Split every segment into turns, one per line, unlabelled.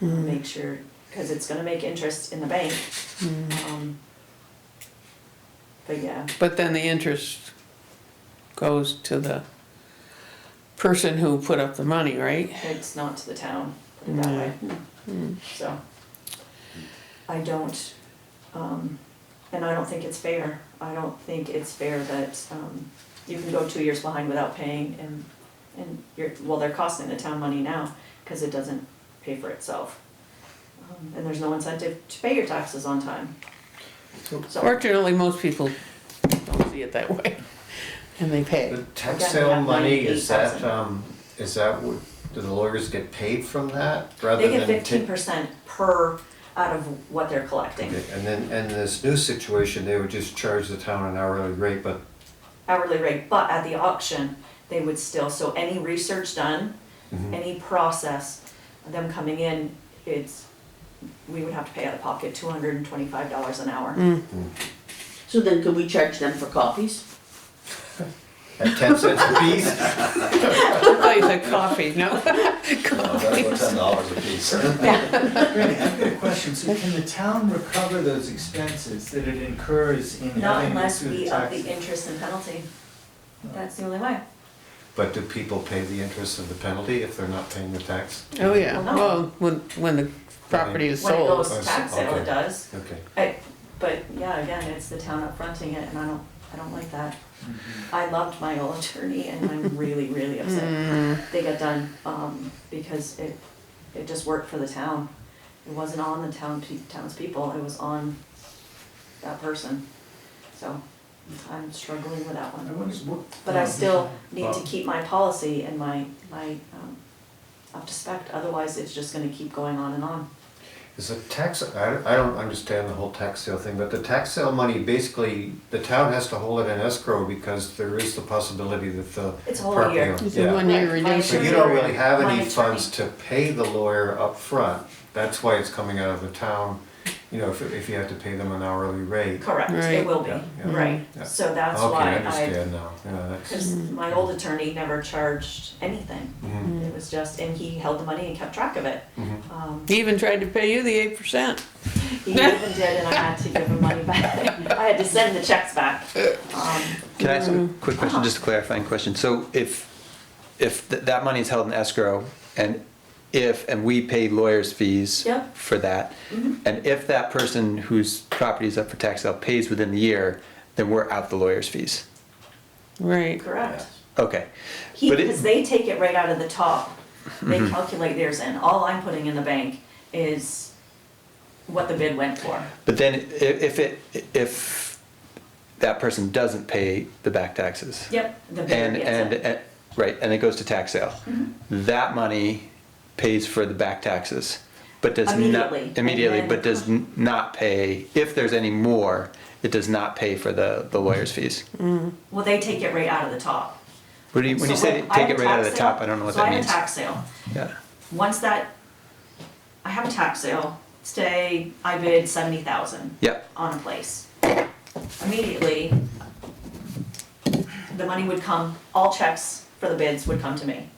make sure, cause it's gonna make interest in the bank. Um, But yeah,
But then the interest goes to the person who put up the money, right?
it's not to the town, put it that way, so. I don't, um, and I don't think it's fair, I don't think it's fair that, um, you can go two years behind without paying and, and you're, well, they're costing the town money now, cause it doesn't pay for itself. Um, And there's no incentive to pay your taxes on time.
So-
So,
Fortunately, most people don't see it that way, and they pay.
The tax
Again,
sale
that
money, is that,
98,000.
um, is that, what- do the lawyers get paid from that rather
they get
than?
fifteen
ta-
percent per, out of what they're collecting,
Okay, And then, and this new situation, they would just charge the town an hourly rate, but
hourly rate, but at the auction, they would still, so any research done,
mm-hmm,
any process, them coming in, it's, we would have to pay out of pocket two hundred and twenty-five dollars an hour.
So then could we charge them for coffees?
at ten cents a piece?
I thought you said coffee, no?
Oh,
No, that's what ten dollars a piece.
Granny, I've got a question, so can the town recover those expenses that it incurs in
Not
having it
unless
through the
we up
taxes?
the interest and penalty. That's the only way.
But do people pay the interest and the penalty if they're not paying the tax?
Oh, yeah,
Well, no.
well, when, when the property is
When it
sold.
goes tax sale,
Okay.
it does.
Okay.
I, but yeah, again, it's the town up fronting it and I don't, I don't like that.
Mm-hmm.
I loved my old attorney and I'm really, really upset. They got done, um, because it, it just worked for the town. It wasn't on the town, pe- townspeople, it was on that person. So I'm struggling with that
I
one.
wonder what.
But I still need to keep my policy and my, my, um, up to spec, otherwise it's just gonna keep going on and on.
Is the tax, I, I don't understand the whole tax sale thing, but the tax sale money, basically, the town has to hold it in escrow because there is the possibility that the.
It's a whole
property
year.
owner-
It's
yeah.
a one-year
Right, my
So
redemption.
you don't really have
My
any
attorney-
funds to pay the lawyer up front. that's why it's coming out of the town, you know, if, if you have to pay them an hourly rate.
Correct,
Right.
it will be,
Yeah, yeah.
right,
Yeah.
so that's
Okay, I
why I,
understand now, yeah, that's,
cause my old attorney never charged anything.
mhm,
It was just, and he held the money and kept track of it.
mhm.
Um,
He even tried to pay you the eight percent.
he even did, and I had to give him money back, I had to send the checks back. Um,
Can I ask a quick question, just a clarifying question? So if, if th- that money is held in escrow and if, and we pay lawyers' fees
Yep.
for that, and if that person whose property is up for tax sale pays within the year, then we're out the lawyers' fees.
Right,
Correct,
Okay.
he,
But it- Mm-hmm.
because they take it right out of the top, they calculate theirs in, all I'm putting in the bank is what the bid went for.
But then i- if it, if that person doesn't pay the back taxes.
Yep, the bidder
And,
gets
and,
it.
and, right, and it goes to tax sale.
Mm-hmm.
That money pays for the back taxes, but does not.
Immediately, and
Immediately,
then- uh-huh.
but does n- not pay, if there's any more, it does not pay for the, the lawyer's fees.
Well, they take it right out of the top.
What do you, when you
So
say
I
take
have
it
a
right out of the
tax
top,
sale-
I don't know what
so
that
I have a
means.
tax sale,
Yeah,
once that, I have a tax sale, say I bid seventy thousand
yep,
on a place. Immediately, the money would come, all checks for the bids would come to me.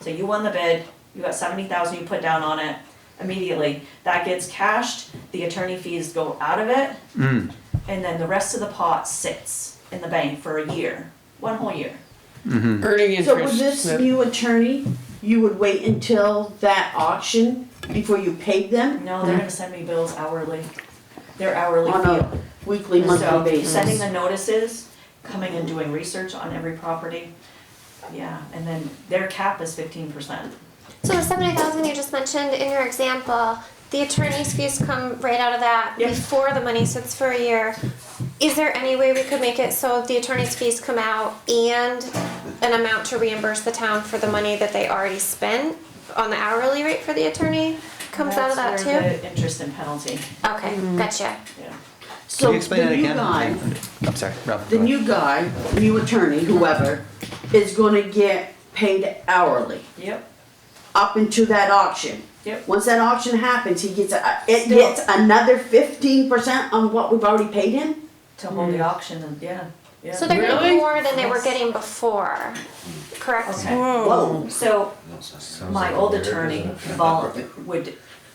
So you won the bid, you got seventy thousand you put down on it, immediately, that gets cashed, the attorney fees go out of it.
Mm,
And then the rest of the pot sits in the bank for a year, one whole year.
mm-hmm.
earning interest.
So with this
that-
new attorney, you would wait until that auction before you paid them
No, they're gonna send me bills hourly, their hourly
on
fee.
a weekly, monthly
So, sending
basis?
the notices, coming and doing research on every property, yeah, and then their cap is fifteen percent.
So the seventy thousand you just mentioned in your example, the attorney's fees come right out of that
Yep.
before the money sits for a year. Is there any way we could make it so the attorney's fees come out and an amount to reimburse the town for the money that they already spent on the hourly rate for the attorney comes out of that
That's
too?
where the Mm-hmm. interest and penalty,
Okay, gotcha.
yeah.
can
So
you explain that
the new
again?
guy,
I'm sorry, Rob.
the new guy, new attorney, whoever, is gonna get paid hourly
Yep,
up into that auction.
yep,
Once that auction happens, he gets, a- it
Still.
gets another fifteen percent on what we've already paid him?
to hold the auction and, yeah, yeah.
Hmm. So they're getting
Really?
more than they were getting before, correct?
Okay,
Whoa.
Whoa.
so
Sounds
my
like
old
a weird,
attorney
isn't it?
vol, would